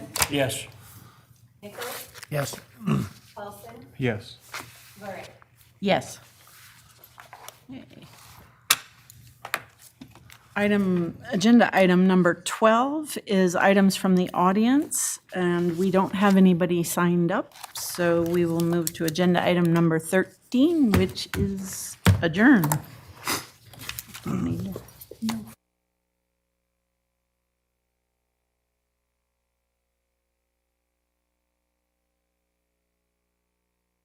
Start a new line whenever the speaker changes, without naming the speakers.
Yes.
Nichols,
Yes.
Paulson,
Yes.
Lurick.
Yes. Item, agenda item number 12 is items from the audience, and we don't have anybody signed up, so we will move to agenda item number 13, which is adjourn. Don't need to- no.